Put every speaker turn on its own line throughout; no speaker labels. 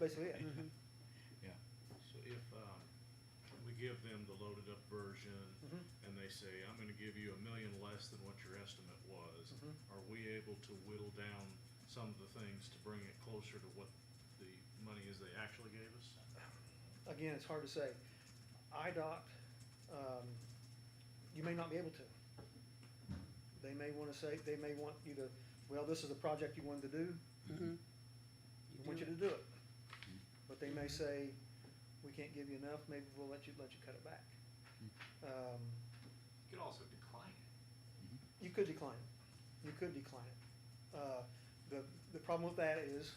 basically it. Mhm.
Yeah.
So if, um, we give them the loaded up version
Mhm.
and they say, I'm gonna give you a million less than what your estimate was,
Mhm.
are we able to whittle down some of the things to bring it closer to what the money is they actually gave us?
Again, it's hard to say. IDOT, um, you may not be able to. They may want to say, they may want you to, well, this is the project you wanted to do,
Mhm.
we want you to do it. But they may say, we can't give you enough, maybe we'll let you, let you cut it back. Um,
You could also decline it.
You could decline it. You could decline it. Uh, The, the problem with that is, uh,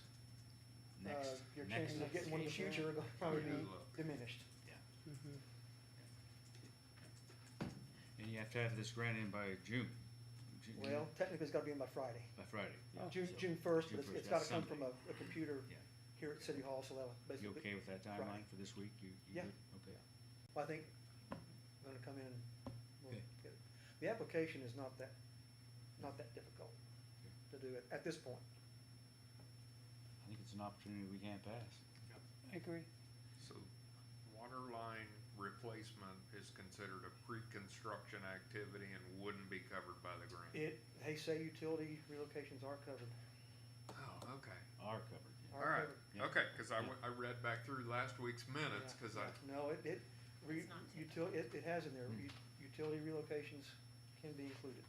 Next,
your
next,
chances of getting one in the
Next.
future are gonna probably be
Yeah.
diminished.
yeah.
Mhm.
And you have to have this grant in by June. Ju-
Well, uh, technically, it's gotta be in by Friday.
By Friday. yeah.
June,
So,
June first, but it's, it's gotta
that's
come from a,
Sunday.
a computer
Yeah.
here at City Hall, so that'll
You
basically.
okay with that
Friday.
timeline for this week? You, you
Yeah.
good? Okay.
Well, I think I'm gonna come in and we'll
Okay.
get it. The application is not that, not that difficult
Okay.
to do at, at this point.
I think it's an opportunity we can't pass.
I agree.
So water line replacement is considered a pre-construction activity and wouldn't be covered by the grant?
It, they say utility relocations are covered.
Oh, okay.
Are covered. yeah.
Are
All right,
Yeah.
okay, because I, w- I read back through last week's minutes,
Yeah,
because I,
yeah. No, it, it, re,
It's not taken.
util, it, it has in there,
Hmm.
U- utility relocations can be included.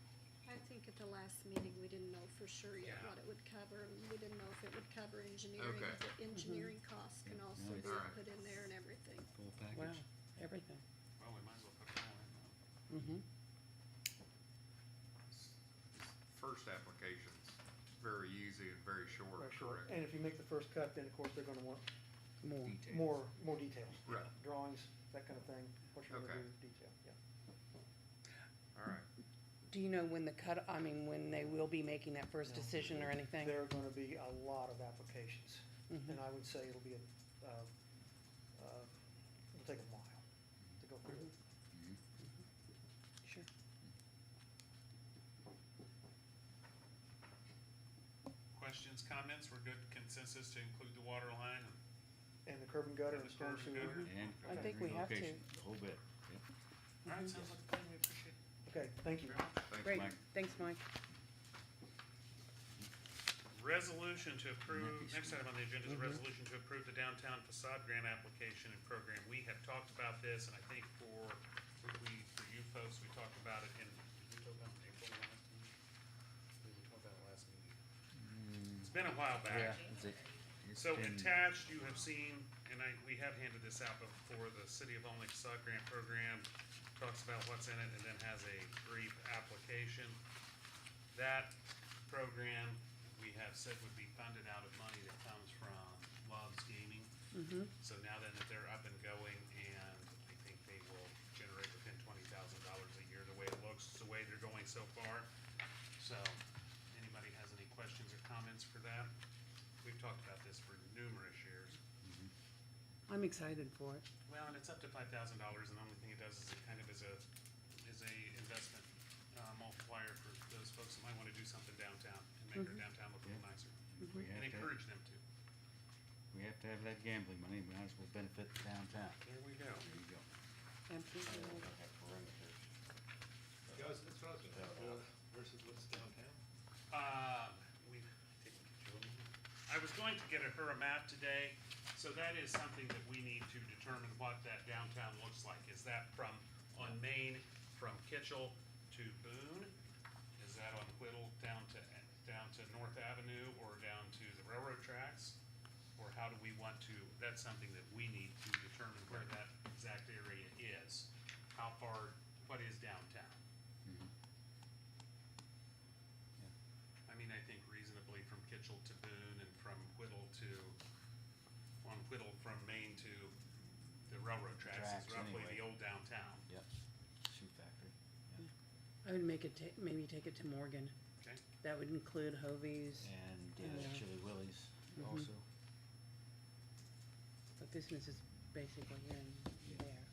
I think at the last meeting, we didn't know for sure yet
Yeah.
what it would cover, and we didn't know if it would cover engineering.
Okay.
if the Engineering costs can
Yeah,
also be
nice.
Alright.
put in there and everything.
Full
Wow,
package.
everything.
Well, we might as well put it all in now.
Mm-hmm.
first application's very easy and very short,
Very short.
correct?
And if you make the first cut, then of course they're gonna want
More.
Details.
more, more details.
Right.
Drawings, that kind of thing, what you're gonna do
Okay.
with detail, yeah.
All right,
Do you know when the cut, I mean, when they will be making that first
No.
decision or anything?
There are gonna be a lot of applications,
Mhm.
and I would say it'll be a, um, uh, it'll take a while to go through
Mm-hmm.
it.
Mhm.
Sure.
Questions, comments, we're good consensus to include the water line?
And the curb and gutter
And
and
the
storm
curb and
sewer.
gutter.
And.
I think we have to. Mm-hmm.
relocation, The whole bit. yeah.
All right, sounds like a plan, we appreciate
Okay, thank
it.
you.
very much.
thanks,
Great,
Mike.
thanks, Mike.
Resolution to approve,
Mickey
next item on the agenda is a resolution to approve the downtown facade grant application and program. We have talked about this, and I think for, we, for you folks, we talked about it in, did we talk about it in April last meeting? Did we talk about it last meeting? It's been a while back.
Yeah, that's it. It's
So
been-
attached, you have seen, and I, we have handed this out before, the City of Olney Facade Grant Program talks about what's in it and then has a brief application. That program, we have said would be funded out of money that comes from Love's Gaming. So now then that they're up and going and I think they will generate within twenty thousand dollars a year, the way it looks, the way they're going so far. So, anybody has any questions or comments for that? We've talked about this for numerous years.
I'm excited for it.
Well, and it's up to five thousand dollars, and the only thing it does is it kind of is a, is a investment uh, multiplier for those folks that might want to do something downtown and make their downtown look a little nicer.
We
And
have to,
encourage them to.
we have to have that gambling money. We might as well benefit the downtown.
There we go.
There you go.
Absolutely.
Guys, that's what I was gonna versus what's downtown.
Um, we've taken control. I was going to get a her a map today, so that is something that we need to determine what that downtown looks like. Is that from, on Main, from Kitchell to Boone? Is that on Whittle down to, down to North Avenue or down to the railroad tracks? Or how do we want to, that's something that we need to determine where that exact area is. How far, what is downtown? I mean, I think reasonably from Kitchell to Boone and from Whittle to, on Whittle from Maine to the railroad tracks
Tracks,
is roughly
anyway.
the old downtown,
Yep. Shoe factory. yeah.
I would make it, ta- maybe take it to Morgan.
okay?
That would include Hovey's,
And
Yeah. Mm-hmm.
uh, Chili Willie's also.
but this one's just basically in there. Mm-hmm.